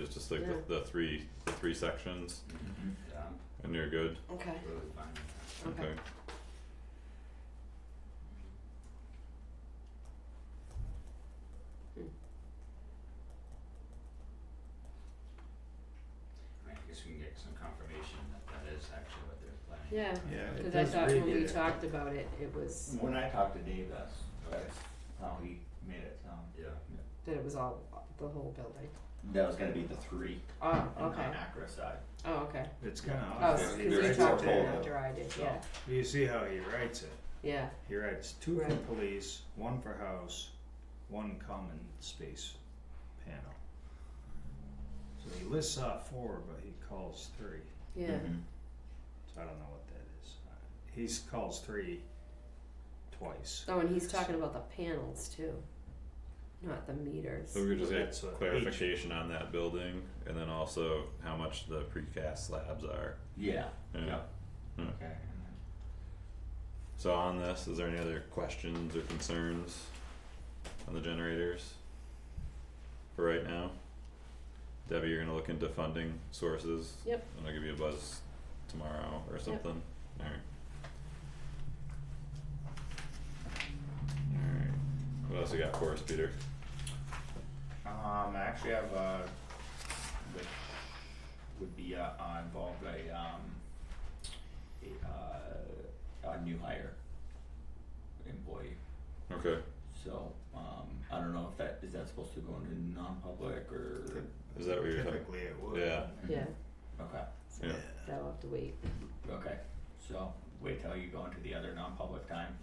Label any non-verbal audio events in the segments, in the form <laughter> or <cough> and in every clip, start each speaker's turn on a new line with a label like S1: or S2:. S1: It's just like
S2: Yeah.
S1: the, the three the three sections,
S3: Mm-hmm. Yeah,
S1: and you're good.
S2: Okay,
S3: I'm really fine with that.
S2: okay.
S3: I mean, I guess we can get some confirmation that that is actually what they're planning.
S4: Yeah,
S5: Yeah, it
S4: cause I
S5: does
S4: thought when
S5: read
S4: we
S5: it.
S4: talked about it, it was,
S5: When I talked to Dave, that's,
S3: Okay,
S5: that's how he made it sound.
S3: yeah,
S4: that it was all, the whole building.
S5: That was gonna be the three
S4: Oh,
S5: on
S4: okay,
S5: Acra side.
S4: oh, okay.
S6: It's kind of
S4: Oh,
S6: odd.
S4: s- cause
S5: they do
S4: you
S5: it
S4: talked to
S5: separate.
S4: him after I did,
S5: So-
S4: yeah,
S6: You see how he writes it.
S4: yeah,
S6: He writes two for
S4: Right.
S6: police, one for house, one common space panel. So he lists out four, but he calls three.
S4: yeah,
S5: Mhm.
S6: So I don't know what that is. Uh, He's calls three twice.
S4: oh, and he's talking about the panels too, not the meters.
S1: So we could just get
S6: That's what each-
S1: clarification on that building, and then also how much the precast slabs are.
S5: Yeah,
S1: Yeah.
S5: Yeah.
S1: Yeah.
S5: okay, and then
S1: So on this, is there any other questions or concerns on the generators? For right now? Debbie, you're gonna look into funding sources?
S4: Yep.
S1: And I'll give you a buzz tomorrow or something, alright. Alright, what else you got for us, Peter?
S5: Um, I actually have a, which would be, uh, uh, involved a, um, a, uh, a new hire employee.
S1: Okay,
S5: So, um, I don't know if that, is that supposed to go into non-public or?
S1: is that what you're talking?
S6: Typically it would.
S1: Yeah.
S4: Yeah,
S5: Okay,
S4: so
S1: Yeah,
S4: that'll have to wait,
S5: okay, so wait till you go into the other non-public time,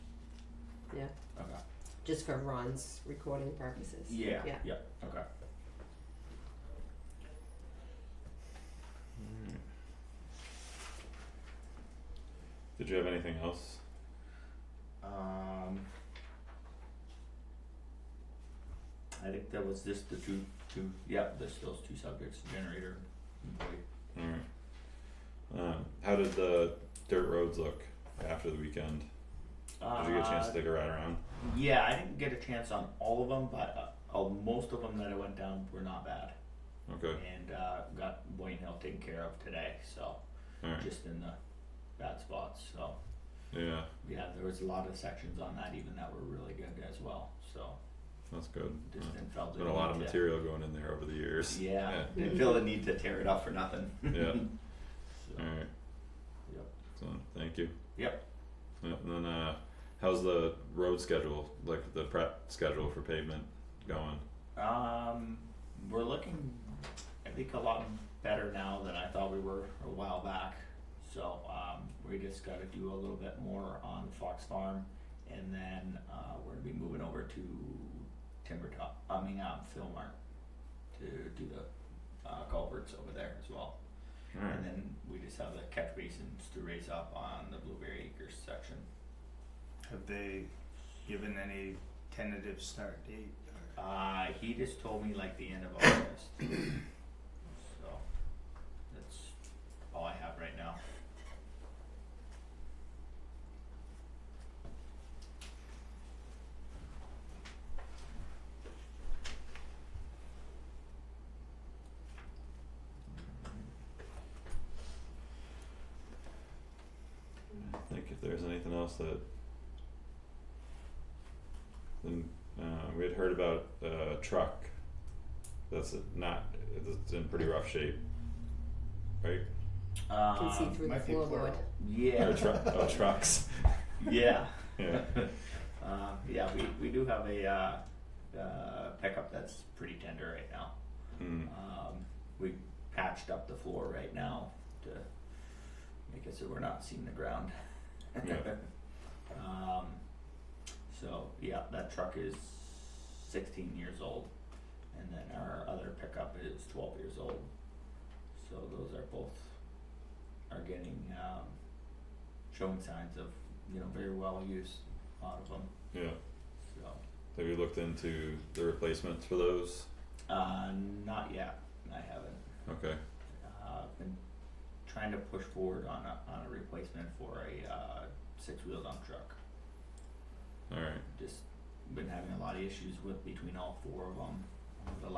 S4: yeah,
S5: okay,
S4: just for Ron's recording purposes.
S5: yeah,
S4: Yeah,
S5: yeah, okay.
S1: did you have anything else?
S5: Um. I think that was just the two, two, yeah, this, those two subjects, generator, employee.
S1: Alright. Um, how did the dirt roads look after the weekend? Did you get a chance to take a ride around?
S5: Uh, Yeah, I didn't get a chance on all of them, but uh, uh, most of them that I went down were not bad.
S1: Okay,
S5: And uh, got Wayne Hill taken care of today, so
S1: alright,
S5: just in the bad spots. So
S1: yeah,
S5: yeah, there was a lot of sections on that even that were really good as well. So
S1: that's good.
S5: just
S1: Yeah.
S5: didn't feel the
S1: Been a lot of
S5: need to-
S1: material going in there over the years.
S5: Yeah,
S1: Yeah.
S5: <laughs> didn't feel the need to tear it up for nothing.
S1: Yeah.
S5: So,
S1: Alright.
S5: Yep.
S1: So, thank you.
S5: <laughs> Yep.
S1: Yep, and then, uh, how's the road schedule, like the prep schedule for pavement going?
S5: Um, we're looking, I think, a lot better now than I thought we were a while back. So, um, we just gotta do a little bit more on Fox Farm and then, uh, we're gonna be moving over to Timber Top, I mean, um, Philmar to do the, uh, culverts over there as well.
S1: Alright,
S5: And then we just have the catch basins to raise up on the Blueberry Acres section.
S6: Have they given any tentative start date? or-
S5: Uh, he just told me like the end of August. so that's all I have right now.
S1: I think if there's anything else that. Then, uh, we had heard about uh, a truck that's not, it's in pretty rough shape. Right,
S4: can see
S5: Um,
S4: through the
S6: might be
S4: floorboard,
S6: plural.
S1: or
S5: yeah,
S1: truck, oh, trucks,
S5: yeah.
S1: <laughs>
S6: <laughs>
S1: yeah,
S6: Uh,
S5: Um, yeah, we, we do have a uh, uh, pickup that's pretty tender right now.
S1: mm,
S5: Um, we patched up the floor right now to make it so we're not seeing the ground.
S1: Yeah.
S5: <laughs> Um, so, yeah, that truck is sixteen years old, and then our other pickup is twelve years old. So those are both, are getting, um, showing signs of, you know, very well used, a lot of them,
S1: yeah,
S5: so.
S1: have you looked into the replacements for those?
S5: Uh, not yet, I haven't.
S1: Okay,
S5: uh, been trying to push forward on a, on a replacement for a uh, six-wheel dump truck.
S1: alright.
S5: Just been having a lot of issues with between all four of them over the